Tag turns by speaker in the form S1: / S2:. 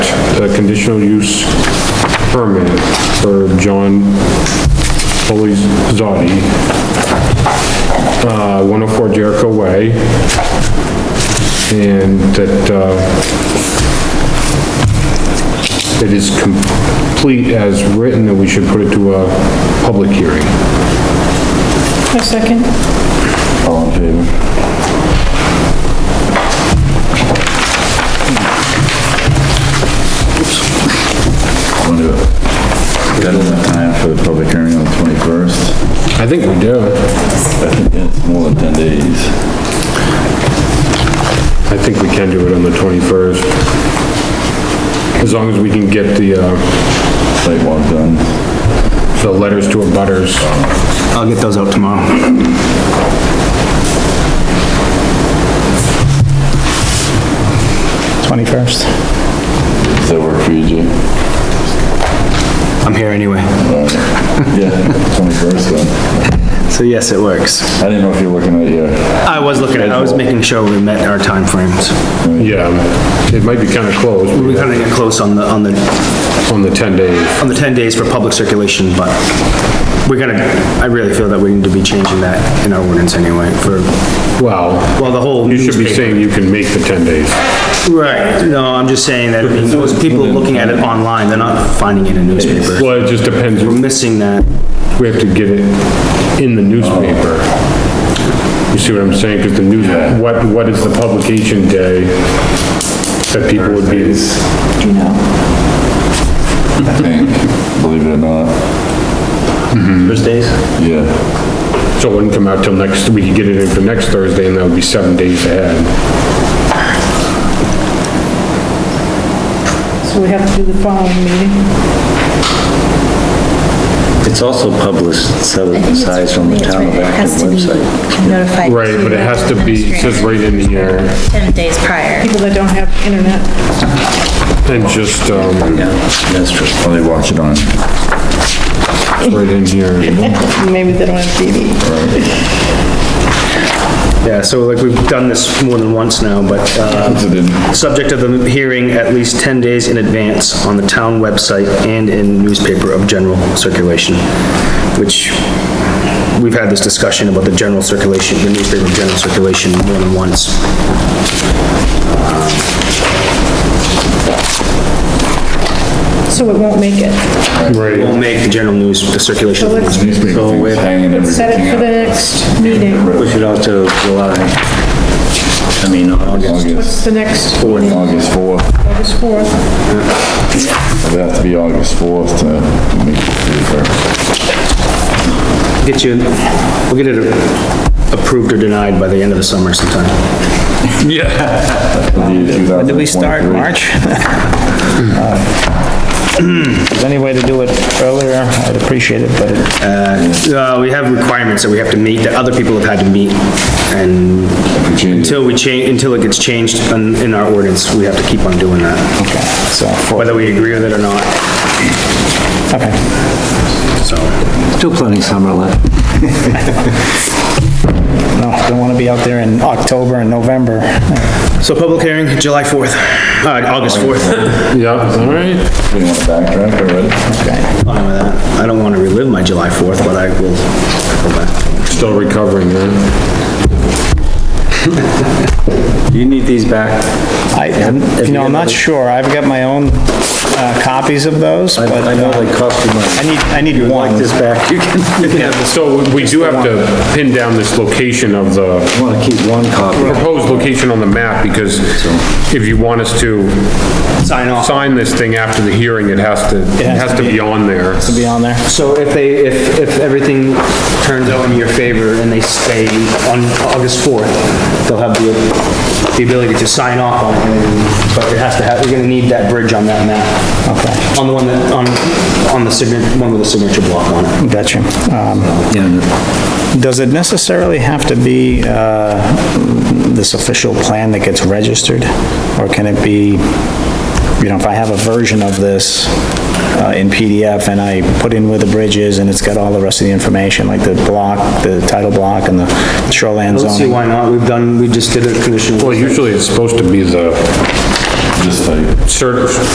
S1: a conditional use permit for John Polizzotti, uh, 104 Jericho Way, and that, uh, it is complete as written, and we should put it to a public hearing.
S2: A second?
S3: All in favor? Wonder, got enough time for the public hearing on the 21st?
S1: I think we do.
S3: I think it's more than 10 days.
S1: I think we can do it on the 21st. As long as we can get the, uh,
S3: Site walk done.
S1: the letters to abutters.
S4: I'll get those out tomorrow. Twenty-first.
S3: Does that work for you, Jay?
S4: I'm here anyway.
S3: Yeah, 21st then.
S4: So yes, it works.
S3: I didn't know if you were looking at your,
S4: I was looking at, I was making sure we met our timeframes.
S1: Yeah, it might be kind of close
S4: We're gonna get close on the, on the,
S1: on the 10 days.
S4: on the ten days for public circulation, but we're gonna, I really feel that we need to be changing that in our ordinance anyway for,
S1: Well,
S4: well, the whole
S1: you should be
S4: newspaper.
S1: saying you can make the 10 days.
S4: Right, no, I'm just saying that, I mean, those people looking at it online, they're not finding it in newspaper.
S1: Well, it just depends,
S4: We're missing that.
S1: we have to get it in the newspaper. You see what I'm saying? Because the news, what, what is the publication day that people would be?
S2: Do you know?
S3: I think, believe it or not,
S4: Thursdays?
S3: yeah.
S1: So it wouldn't come out till next, we could get it in for next Thursday, and that would be seven days ahead.
S2: So we have to do the following meeting?
S5: It's also publicized on the town of Acton website.
S6: website.
S1: Right, but it has to be, it says right in here,
S6: 10 days prior.
S2: People that don't have internet?
S1: and just, um,
S3: That's true. Well, they watch it on.
S1: right in here.
S2: Maybe they don't have TV.
S4: Yeah, so like, we've done this more than once now, but, uh, subject of the hearing at least 10 days in advance on the town website and in newspaper of general circulation, which, we've had this discussion about the general circulation, the newspaper of general circulation more than once.
S2: So it won't make it.
S1: Right,
S4: We'll make the general news, the circulation.
S2: So let's
S3: Newspaper things hanging everything
S2: set it for the next meeting.
S5: Push it out to July, I mean, August.
S2: What's
S3: August,
S2: the next,
S3: August 4th.
S2: August 4th?
S3: It'd have to be August 4th to make it fair.
S4: Get you, we'll get it approved or denied by the end of the summer sometime.
S3: When
S7: Did we start March? If there's any way to do it earlier, I'd appreciate it, but it-
S4: Uh, we have requirements that we have to meet, that other people have had to meet, and until we change, until it gets changed in, in our ordinance, we have to keep on doing that,
S7: okay, so, for-
S4: whether we agree with it or not,
S7: okay.
S4: so.
S5: Still plenty of summer left.
S7: No, don't want to be out there in October and November.
S4: So public hearing, July 4th, uh, August 4th.
S1: yeah, all right.
S3: We want to backtrack already?
S4: Fine with that. I don't want to relive my July 4th, but I will go back.
S1: Still recovering, man.
S5: Do you need these back?
S7: I, you know, I'm not sure, I've got my own uh, copies of those,
S5: I
S7: but
S5: I know
S7: uh,
S5: they cost you
S7: I
S5: money.
S7: need, I need
S5: Like
S7: one.
S5: this back, you can, you
S1: So we do have to pin down this location of the
S5: wanna keep one copy.
S1: proposed location on the map, because if you want us to
S4: Sign off.
S1: sign this thing after the hearing, it has to, it has to be on there.
S7: To be on there.
S4: So if they, if, if everything turns out in your favor and they stay on August 4th, they'll have the, the ability to sign off on it, and- but it has to have, you're gonna need that bridge on that map.
S7: Okay,
S4: On the one that, on, on the signature, one with the signature block on it.
S7: gotcha. Um,
S5: Yeah,
S7: Does it necessarily have to be uh, this official plan that gets registered? Or can it be, you know, if I have a version of this uh, in PDF and I put in where the bridge is and it's got all the rest of the information, like the block, the title block and the shoreline
S4: Let's see
S7: zoning?
S4: why not, we've done, we just did a conditional.
S1: Well, usually it's supposed to be the
S3: Just like.
S1: cert,